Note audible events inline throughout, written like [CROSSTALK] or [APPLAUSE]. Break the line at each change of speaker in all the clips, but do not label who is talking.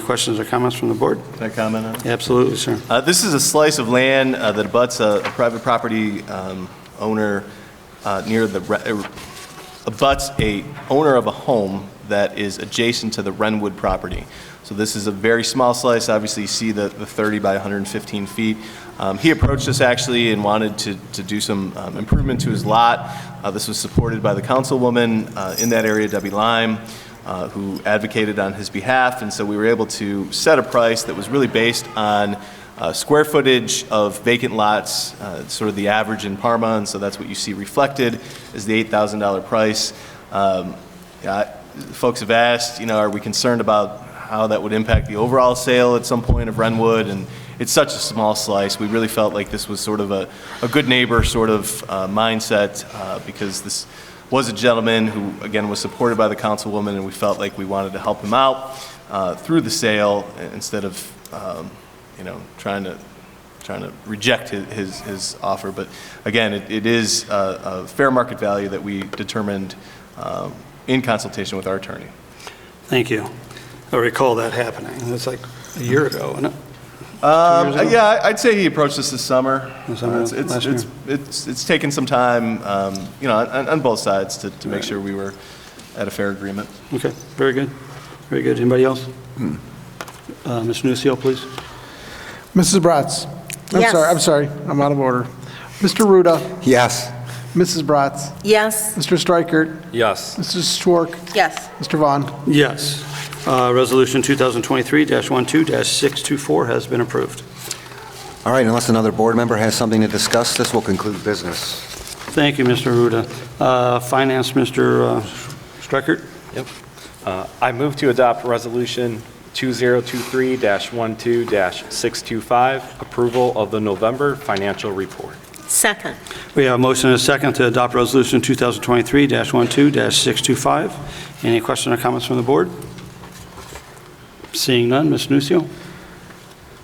questions or comments from the board?
Can I comment on it?
Absolutely, sir.
Uh, This is a slice of land uh, that abuts a a private property um, owner uh, near the, re- er, abuts a owner of a home that is adjacent to the Renwood property. So this is a very small slice, obviously you see the the 30 by 115 feet. Um, He approached us actually and wanted to to do some um, improvement to his lot. Uh, This was supported by the councilwoman uh, in that area, Debbie Lime uh, who advocated on his behalf, and so we were able to set a price that was really based on uh, square footage of vacant lots, uh, sort of the average in Parma, and so that's what you see reflected is the $8,000 price. Um, yeah, Folks have asked, you know, are we concerned about how that would impact the overall sale at some point of Renwood, and it's such a small slice. We really felt like this was sort of a, a good neighbor sort of uh, mindset, uh, because this was a gentleman who, again, was supported by the councilwoman, and we felt like we wanted to help him out uh, through the sale, instead of, um, you know, trying to trying to reject his, his, his offer. But again, it, it is uh, a fair market value that we determined um, in consultation with our attorney.
Thank you. I recall that happening. It's like a year ago, isn't it?
Um,
Two years ago?
yeah, I- I'd say he approached this this summer.
This summer,
Uh, it's, it's,
last
it's, it's, it's taken some time, um, you know, on, on both sides to, to make
Right.
sure we were at a fair agreement.
Okay, very good. Very good. Anybody else? Uh, Mr. Nucio, please.
Mrs. Bratz? I'm
Yes.
sorry, I'm sorry, I'm out of order. Mr. Ruda?
Yes.
Mrs. Bratz?
Yes.
Mr. Strikert?
Yes.
Mrs. Schwark?
Yes.
Mr. Vaughn?
Yes. Uh, Resolution 2023-12-624 has been approved.
All right, unless another board member has something to discuss, this will conclude business.
Thank you, Mr. Ruda. Uh, Finance, Mr. Streckert?
Yep. Uh, I move to adopt Resolution 2023-12-625, approval of the November financial report.
Second.
We have a motion and a second to adopt Resolution 2023-12-625. Any questions or comments from the board? Seeing none, Ms. Nucio?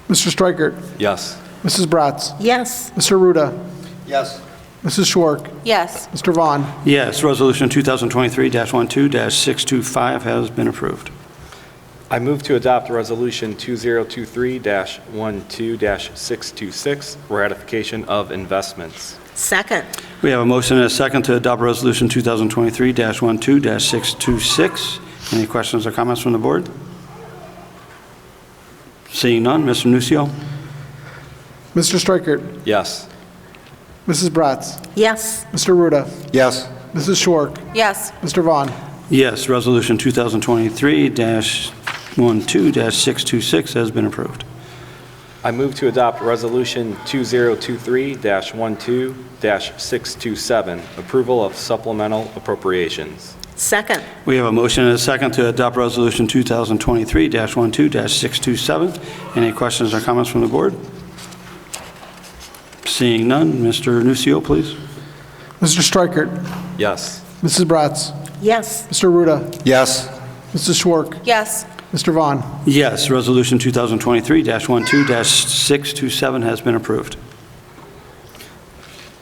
Mr. Strikert?
Yes.
Mrs. Bratz?
Yes.
Mr. Ruda?
Yes.
Mrs. Schwark?
Yes.
Mr. Vaughn?
Yes, Resolution 2023-12-625 has been approved.
I move to adopt Resolution 2023-12-626, ratification of investments.
Second.
We have a motion and a second to adopt Resolution 2023-12-626. Any questions or comments from the board? Seeing none, Mr. Nucio?
Mr. Strikert?
Yes.
Mrs. Bratz?
Yes.
Mr. Ruda?
Yes.
Mrs. Schwark?
Yes.
Mr. Vaughn?
Yes, Resolution 2023-12-626 has been approved.
I move to adopt Resolution 2023-12-627, approval of supplemental appropriations.
Second.
We have a motion and a second to adopt Resolution 2023-12-627. Any questions or comments from the board? Seeing none, Mr. Nucio, please.
Mr. Strikert?
Yes.
Mrs. Bratz?
Yes.
Mr. Ruda?
Yes.
Mrs. Schwark?
Yes.
Mr. Vaughn?
Yes, Resolution 2023-12-627 has been approved.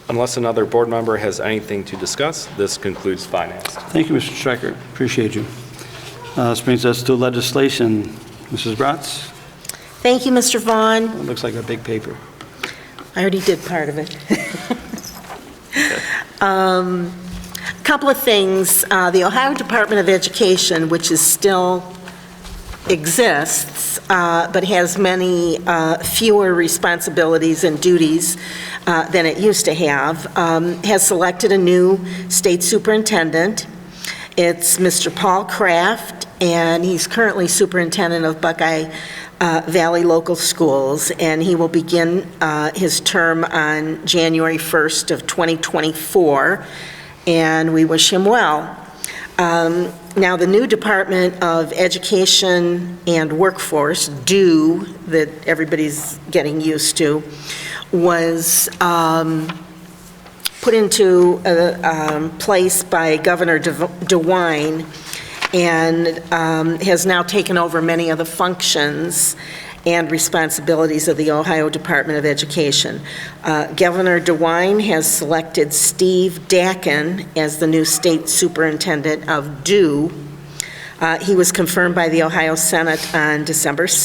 Unless another board member has anything to discuss, this concludes finance.
Thank you, Mr. Stricker. Appreciate you. Uh, This brings us to legislation. Mrs. Bratz,
Thank you, Mr. Vaughn.
it looks like a big paper.
I already did part of [LAUGHS] it. Um, Couple of things. Uh, The Ohio Department of Education, which is still exists, uh, but has many uh, fewer responsibilities and duties uh, than it used to have, um, has selected a new state superintendent. It's Mr. Paul Kraft, and he's currently superintendent of Buckeye uh, Valley Local Schools, and he will begin uh, his term on January 1st of 2024, and we wish him well. Um, Now, the new Department of Education and Workforce, DO, that everybody's getting used to, was um, put into uh, um, place by Governor Dev- DeWine and um, has now taken over many of the functions and responsibilities of the Ohio Department of Education. Uh, Governor DeWine has selected Steve Dakin as the new state superintendent of DO. Uh, Uh, He was confirmed by the Ohio Senate on December 6th.